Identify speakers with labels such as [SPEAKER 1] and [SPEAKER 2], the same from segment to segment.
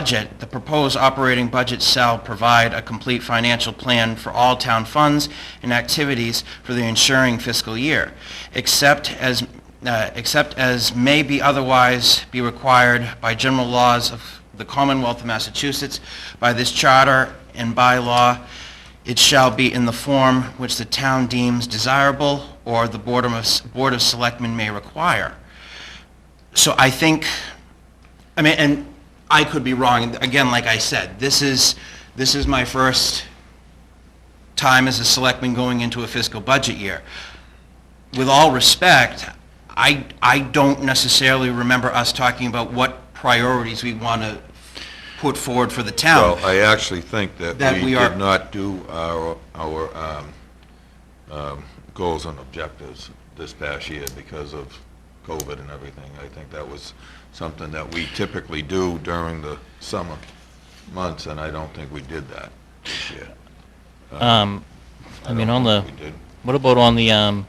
[SPEAKER 1] budget, the proposed operating budget shall provide a complete financial plan for all town funds and activities for the ensuing fiscal year, except as, uh, except as may be otherwise be required by general laws of the Commonwealth of Massachusetts, by this charter and by law, it shall be in the form which the town deems desirable or the Board of, Board of Selectmen may require. So I think, I mean, and I could be wrong, again, like I said, this is, this is my first time as a selectman going into a fiscal budget year. With all respect, I, I don't necessarily remember us talking about what priorities we want to put forward for the town.
[SPEAKER 2] Well, I actually think that
[SPEAKER 1] That
[SPEAKER 2] we
[SPEAKER 1] we are-
[SPEAKER 2] did not do our, our um, um, goals and objectives this past year because of COVID and everything. I think that was something that we typically do during the summer months, and I don't think we did that this year.
[SPEAKER 3] Um, I mean, on the,
[SPEAKER 2] We did.
[SPEAKER 3] what about on the, um,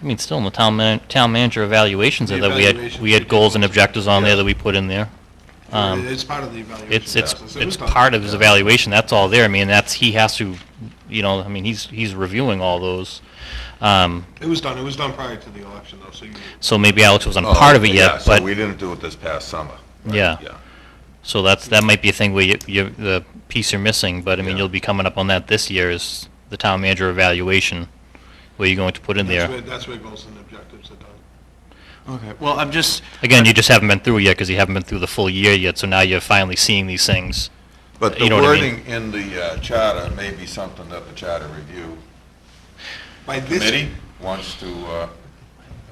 [SPEAKER 3] I mean, still on the town man, town manager evaluations
[SPEAKER 4] The
[SPEAKER 3] that we had,
[SPEAKER 4] evaluation
[SPEAKER 3] we had goals and objectives on there
[SPEAKER 2] Yeah.
[SPEAKER 3] that we put in there. Um,
[SPEAKER 4] It's part of the evaluation.
[SPEAKER 3] It's, it's,
[SPEAKER 4] process. It
[SPEAKER 3] it's
[SPEAKER 4] was done.
[SPEAKER 3] part of his evaluation, that's all there. I mean, that's, he has to, you know, I mean, he's, he's reviewing all those. Um,
[SPEAKER 4] It was done, it was done prior to the election though, so you,
[SPEAKER 3] so maybe Alex
[SPEAKER 4] Oh,
[SPEAKER 3] wasn't part of it
[SPEAKER 2] Oh, Yeah,
[SPEAKER 3] yet,
[SPEAKER 2] so we
[SPEAKER 3] but,
[SPEAKER 2] didn't do it this past summer. right,
[SPEAKER 3] Yeah.
[SPEAKER 2] Yeah.
[SPEAKER 3] so that's, that might be a thing where you, you, the piece you're missing, but I mean,
[SPEAKER 2] Yeah.
[SPEAKER 3] you'll be coming up on that this year is the town manager evaluation, where you're going to put in
[SPEAKER 4] that's
[SPEAKER 3] there.
[SPEAKER 4] where, that's where goals and objectives are done.
[SPEAKER 1] Okay, well, I'm just,
[SPEAKER 3] Again, you just haven't been through it yet, because you haven't been through the full year yet, so now you're finally seeing these things.
[SPEAKER 2] But the
[SPEAKER 3] You know what I mean?
[SPEAKER 2] wording in the uh, charter may be something that the charter review
[SPEAKER 4] By this.
[SPEAKER 2] committee wants to uh,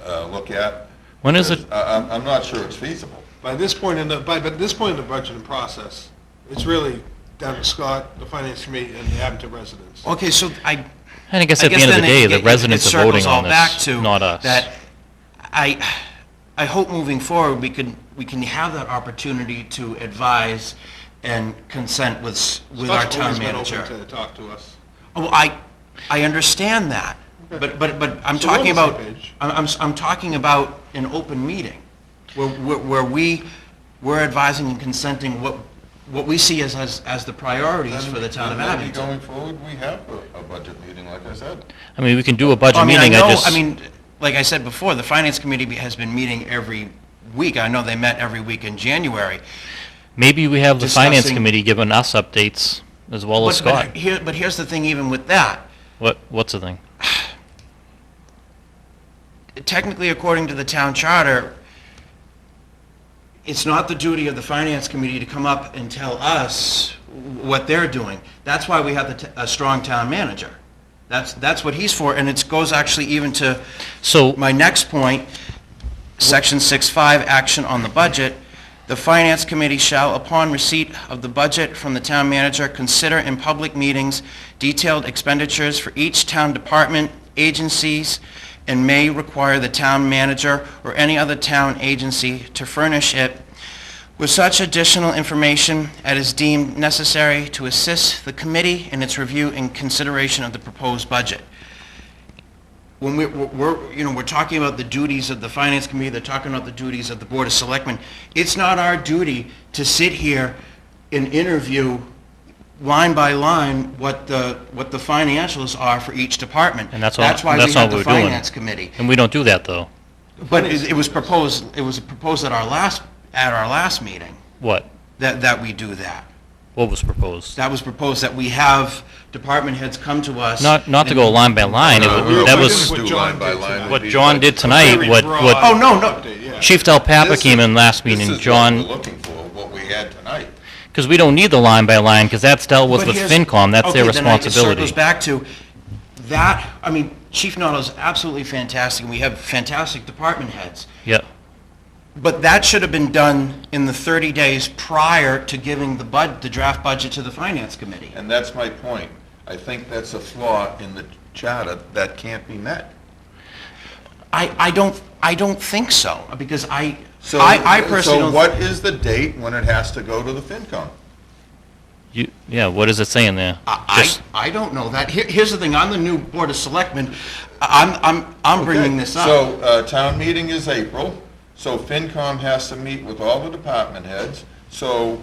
[SPEAKER 2] uh, look at.
[SPEAKER 3] When is it,
[SPEAKER 2] I- I'm, I'm not sure it's feasible.
[SPEAKER 4] By this point in the, by, by this point in the budgeting process, it's really down to Scott, the finance committee, and the Abington residents.
[SPEAKER 1] okay, so I,
[SPEAKER 3] and I guess
[SPEAKER 1] I
[SPEAKER 3] at the end of the
[SPEAKER 1] then it-
[SPEAKER 3] day,
[SPEAKER 1] it-
[SPEAKER 3] the
[SPEAKER 1] it-
[SPEAKER 3] residents
[SPEAKER 1] it
[SPEAKER 3] are voting
[SPEAKER 1] circles all
[SPEAKER 3] on
[SPEAKER 1] back
[SPEAKER 3] this,
[SPEAKER 1] to
[SPEAKER 3] not us.
[SPEAKER 1] That I, I hope moving forward, we can, we can have that opportunity to advise and consent with, s- with our
[SPEAKER 4] Scott's
[SPEAKER 1] town
[SPEAKER 4] always been
[SPEAKER 1] manager.
[SPEAKER 4] open to talk to us.
[SPEAKER 1] Oh, I, I understand that, but, but, but I'm
[SPEAKER 4] So we're on
[SPEAKER 1] talking
[SPEAKER 4] the same
[SPEAKER 1] about,
[SPEAKER 4] page.
[SPEAKER 1] I'm, I'm, s- I'm talking about an open meeting, where, where where we, we're advising and consenting what, what we see as, as, as the priorities for the town of
[SPEAKER 2] Maybe
[SPEAKER 1] Abington.
[SPEAKER 2] Going forward, we have a a budget meeting, like I said.
[SPEAKER 3] I mean, we can do a budget
[SPEAKER 1] Well, I mean,
[SPEAKER 3] meeting,
[SPEAKER 1] I
[SPEAKER 3] I
[SPEAKER 1] know,
[SPEAKER 3] just.
[SPEAKER 1] I mean, like I said before, the finance committee be- has been meeting every week. I know they met every week in January.
[SPEAKER 3] Maybe we have the finance
[SPEAKER 1] discussing-
[SPEAKER 3] committee giving us updates as well as
[SPEAKER 1] But- but
[SPEAKER 3] Scott.
[SPEAKER 1] Here, but here's the thing, even with that,
[SPEAKER 3] What, what's the thing?
[SPEAKER 1] technically, according to the town charter, it's not the duty of the finance committee to come up and tell us what they're doing. That's why we have the t- a strong town manager. That's, that's what he's for, and it goes actually even to
[SPEAKER 3] So,
[SPEAKER 1] my next point, section six-five, action on the budget. The finance committee shall, upon receipt of the budget from the town manager, consider in public meetings detailed expenditures for each town department, agencies, and may require the town manager or any other town agency to furnish it with such additional information as is deemed necessary to assist the committee in its review and consideration of the proposed budget when we- we're, we're, you know, we're talking about the duties of the finance committee, they're talking about the duties of the board of selectmen, it's not our duty to sit here and interview line by line what the, what the financials are for each department.
[SPEAKER 3] And that's all-
[SPEAKER 1] why we
[SPEAKER 3] that's all
[SPEAKER 1] have the
[SPEAKER 3] we're doing.
[SPEAKER 1] finance committee.
[SPEAKER 3] and we don't do that, though.
[SPEAKER 1] But it it was proposed, it was proposed at our last, at our last meeting,
[SPEAKER 3] What?
[SPEAKER 1] that, that we do that.
[SPEAKER 3] What was proposed?
[SPEAKER 1] That was proposed, that we have department heads come to us.
[SPEAKER 3] Not, not to go
[SPEAKER 1] and-
[SPEAKER 3] line by line, it
[SPEAKER 1] Uh,
[SPEAKER 2] No,
[SPEAKER 3] wa-
[SPEAKER 4] we were-
[SPEAKER 3] that
[SPEAKER 4] we
[SPEAKER 3] was,
[SPEAKER 4] didn't-
[SPEAKER 2] do
[SPEAKER 4] what John
[SPEAKER 2] line by
[SPEAKER 4] did
[SPEAKER 2] line
[SPEAKER 4] tonight.
[SPEAKER 2] would
[SPEAKER 3] what
[SPEAKER 2] be
[SPEAKER 3] John
[SPEAKER 2] like-
[SPEAKER 3] did tonight,
[SPEAKER 4] Very
[SPEAKER 3] what,
[SPEAKER 4] broad
[SPEAKER 3] what
[SPEAKER 1] Oh, no, no.
[SPEAKER 4] update, yeah.
[SPEAKER 3] Chief Delpapa
[SPEAKER 2] This
[SPEAKER 3] came
[SPEAKER 2] is-
[SPEAKER 3] in last
[SPEAKER 2] This is
[SPEAKER 3] meeting,
[SPEAKER 2] what
[SPEAKER 3] John,
[SPEAKER 2] we're looking for, what we had tonight.
[SPEAKER 3] because we don't need the line by line, because that's dealt with
[SPEAKER 1] But
[SPEAKER 3] with
[SPEAKER 1] here's-
[SPEAKER 3] FinCom, that's their
[SPEAKER 1] okay, then I- It circles
[SPEAKER 3] responsibility.
[SPEAKER 1] back to that, I mean, Chief Noto's absolutely fantastic, and we have fantastic department heads.
[SPEAKER 3] Yeah,
[SPEAKER 1] But that should have been done in the 30 days prior to giving the bud, the draft budget to the Finance Committee.
[SPEAKER 2] And that's my point. I think that's a flaw in the charter that can't be met.
[SPEAKER 1] I, I don't, I don't think so, because I,
[SPEAKER 2] So-
[SPEAKER 1] I I personally don't...
[SPEAKER 2] So what is the date when it has to go to the FinCom?
[SPEAKER 3] you, yeah, what is it saying there?
[SPEAKER 1] I,
[SPEAKER 3] Just-
[SPEAKER 1] I don't know that. Here- Here's the thing, I'm the new Board of Selectmen, I'm, I'm, I'm bringing
[SPEAKER 2] Okay,
[SPEAKER 1] this up.
[SPEAKER 2] So, uh, town meeting is April, so FinCom has to meet with all the department heads. So